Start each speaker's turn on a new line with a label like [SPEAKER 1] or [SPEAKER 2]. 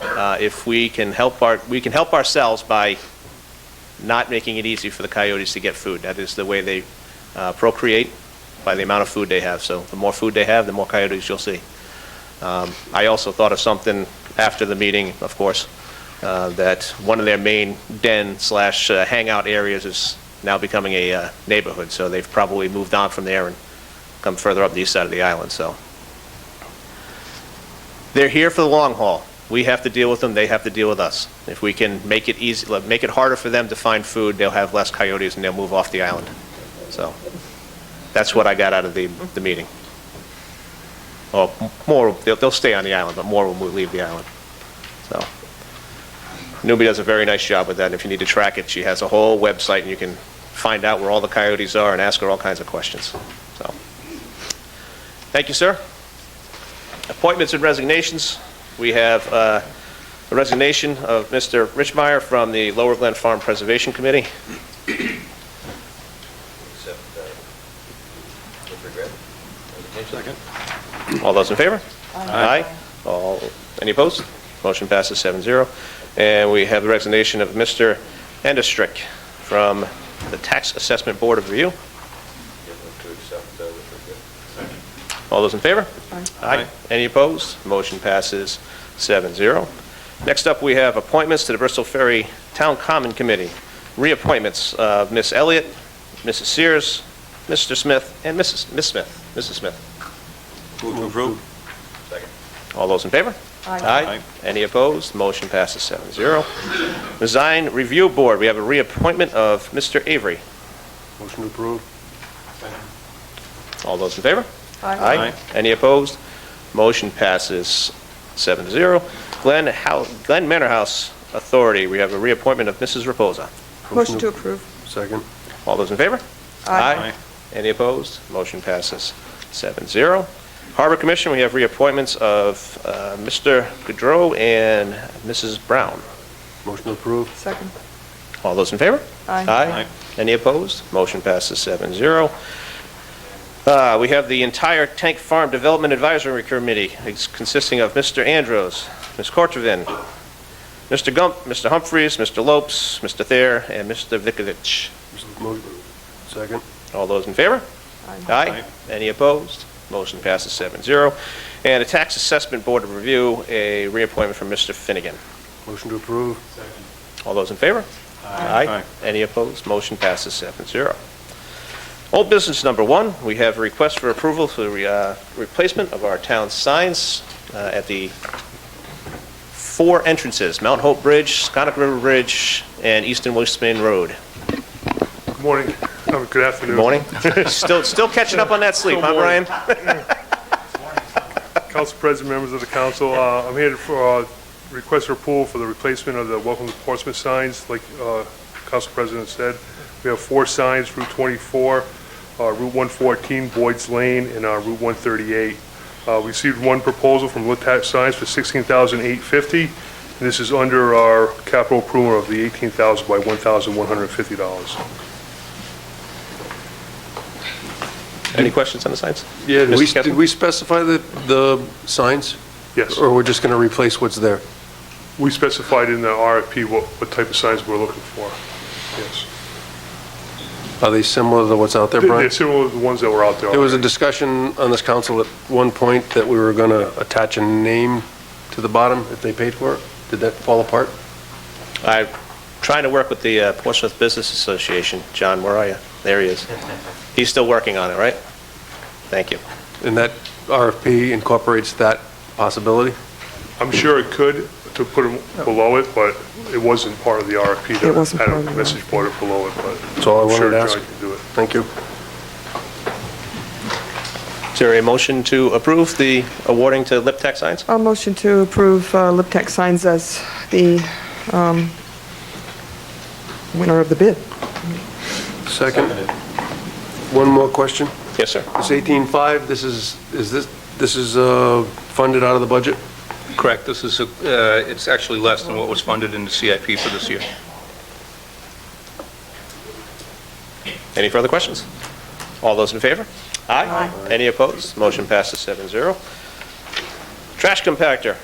[SPEAKER 1] Uh, If we can help our, we can help ourselves by not making it easy for the coyotes to get food. That is the way they uh, procreate, by the amount of food they have. So the more food they have, the more coyotes you'll see. Um, I also thought of something after the meeting, of course, uh, that one of their main den slash uh, hangout areas is now becoming a uh, neighborhood, so they've probably moved on from there and come further up the east side of the island, so. They're here for the long haul. We have to deal with them, they have to deal with us. If we can make it easy, like, make it harder for them to find food, they'll have less coyotes and they'll move off the island. So, that's what I got out of the, the meeting. Well, more, they'll, they'll stay on the island, but more will leave the island. So, Newbie does a very nice job with that, and if you need to track it, she has a whole website, and you can find out where all the coyotes are and ask her all kinds of questions, so. Thank you, sir. Appointments and resignations. We have uh, a resignation of Mr. Richmeyer from the Lower Glen Farm Preservation Committee.
[SPEAKER 2] Except uh, with regret.
[SPEAKER 3] Second.
[SPEAKER 1] All those in favor? Aye. All, any opposed? Motion passes 7-0. And we have the resignation of Mr. Endestrick from the Tax Assessment Board of Review.
[SPEAKER 2] Yeah, move to accept uh, with regret.
[SPEAKER 1] All those in favor?
[SPEAKER 4] Aye.
[SPEAKER 1] Any opposed? Motion passes 7-0. Next up, we have appointments to the Bristol Ferry Town Common Committee. Reappointments of Ms. Elliott, Mrs. Sears, Mr. Smith, and Mrs. Ms. Smith, Mrs. Smith.
[SPEAKER 3] Move to approve.
[SPEAKER 2] Second.
[SPEAKER 1] All those in favor?
[SPEAKER 4] Aye.
[SPEAKER 1] Any opposed? Motion passes 7-0. Design Review Board, we have a reappointment of Mr. Avery.
[SPEAKER 3] Motion to approve.
[SPEAKER 1] All those in favor?
[SPEAKER 4] Aye.
[SPEAKER 3] Aye.
[SPEAKER 1] Any opposed? Motion passes seven to zero. Glen Hou- Glen Manor House Authority, we have a reappointment of Mrs. Reposa.
[SPEAKER 4] Motion to approve.
[SPEAKER 3] Second.
[SPEAKER 1] All those in favor?
[SPEAKER 4] Aye.
[SPEAKER 1] Any opposed? Motion passes seven zero. Harbor Commission, we have reappointments of uh, Mr. Gaudreau and Mrs. Brown.
[SPEAKER 3] Motion to approve.
[SPEAKER 4] Second.
[SPEAKER 1] All those in favor?
[SPEAKER 4] Aye.
[SPEAKER 1] Aye.
[SPEAKER 3] Aye.
[SPEAKER 1] Any opposed? Motion passes seven zero. Uh, We have the entire Tank Farm Development Advisory Committee It's consisting of Mr. Andros, Ms. Cortavin, Mr. Gump, Mr. Humphries, Mr. Lopes, Mr. Thayer, and Mr. Vikovich.
[SPEAKER 3] Motion- Second.
[SPEAKER 1] All those in favor?
[SPEAKER 4] Aye.
[SPEAKER 1] Aye. Any opposed? Motion passes seven zero. And the Tax Assessment Board of Review, a reappointment from Mr. Finnegan.
[SPEAKER 3] Motion to approve.
[SPEAKER 1] All those in favor?
[SPEAKER 3] Aye.
[SPEAKER 1] Any opposed? Motion passes 7-0. Old business number one, we have a request for approval for the uh, replacement of our town signs uh, at the four entrances, Mount Hope Bridge, Scottick River Bridge, and East and West Main Road.
[SPEAKER 5] Good morning, Oh, good afternoon.
[SPEAKER 1] Good morning. Still, still catching up on that sleep, huh,
[SPEAKER 5] Still
[SPEAKER 1] Brian?
[SPEAKER 5] morning. Council President, members of the council, uh, I'm here for, uh, request for approval for the replacement of the Welcome to Portsmouth signs, like, uh, Council President said. We have four signs, Route 24, uh, Route 114, Boyd's Lane, and, uh, Route 138. Uh, we received one proposal from Litat Signs for 16850 and this is under our capital approval of the 18000 by $1,150.
[SPEAKER 1] Any questions on the signs?
[SPEAKER 3] Yeah, did
[SPEAKER 1] Mr.
[SPEAKER 3] we-
[SPEAKER 1] Kessler?
[SPEAKER 3] did we specify the, the signs?
[SPEAKER 5] Yes.
[SPEAKER 3] Or we're just going to replace what's there?
[SPEAKER 5] We specified in the RFP what, what type of signs we're looking for. Yes.
[SPEAKER 3] Are they similar to what's out there,
[SPEAKER 5] They-
[SPEAKER 3] Brian?
[SPEAKER 5] They're similar to the ones that were out there.
[SPEAKER 3] There was a
[SPEAKER 5] already.
[SPEAKER 3] discussion on this council at one point that we were going to attach a name to the bottom if they paid for it. Did that fall apart?
[SPEAKER 1] I'm trying to work with the uh, Portsmouth Business Association. John, where are you? There he is. He's still working on it, right? Thank you.
[SPEAKER 3] And that RFP incorporates that possibility?
[SPEAKER 5] I'm sure it could, to put them below it, but it wasn't part of the RFP. that
[SPEAKER 4] It wasn't
[SPEAKER 5] had a
[SPEAKER 4] part of the
[SPEAKER 5] Message board below it, but.
[SPEAKER 3] That's all I
[SPEAKER 5] I'm
[SPEAKER 3] wanted
[SPEAKER 5] sure
[SPEAKER 3] to ask.
[SPEAKER 5] John can do it.
[SPEAKER 3] Thank you.
[SPEAKER 1] Is there a motion to approve the awarding to Lip Tech Science?
[SPEAKER 4] I'll motion to approve uh, Liptek Signs as the um, winner of the bid.
[SPEAKER 3] Second. One more question.
[SPEAKER 1] Yes, sir.
[SPEAKER 3] This 18.5, this is, is this, this is uh, funded out of the budget?
[SPEAKER 6] Correct, this is, a- uh, it's actually less than what was funded in the CIP for this year.
[SPEAKER 1] Any further questions? All those in favor? Aye. Any opposed? Motion passes 7-0. Trash compactor,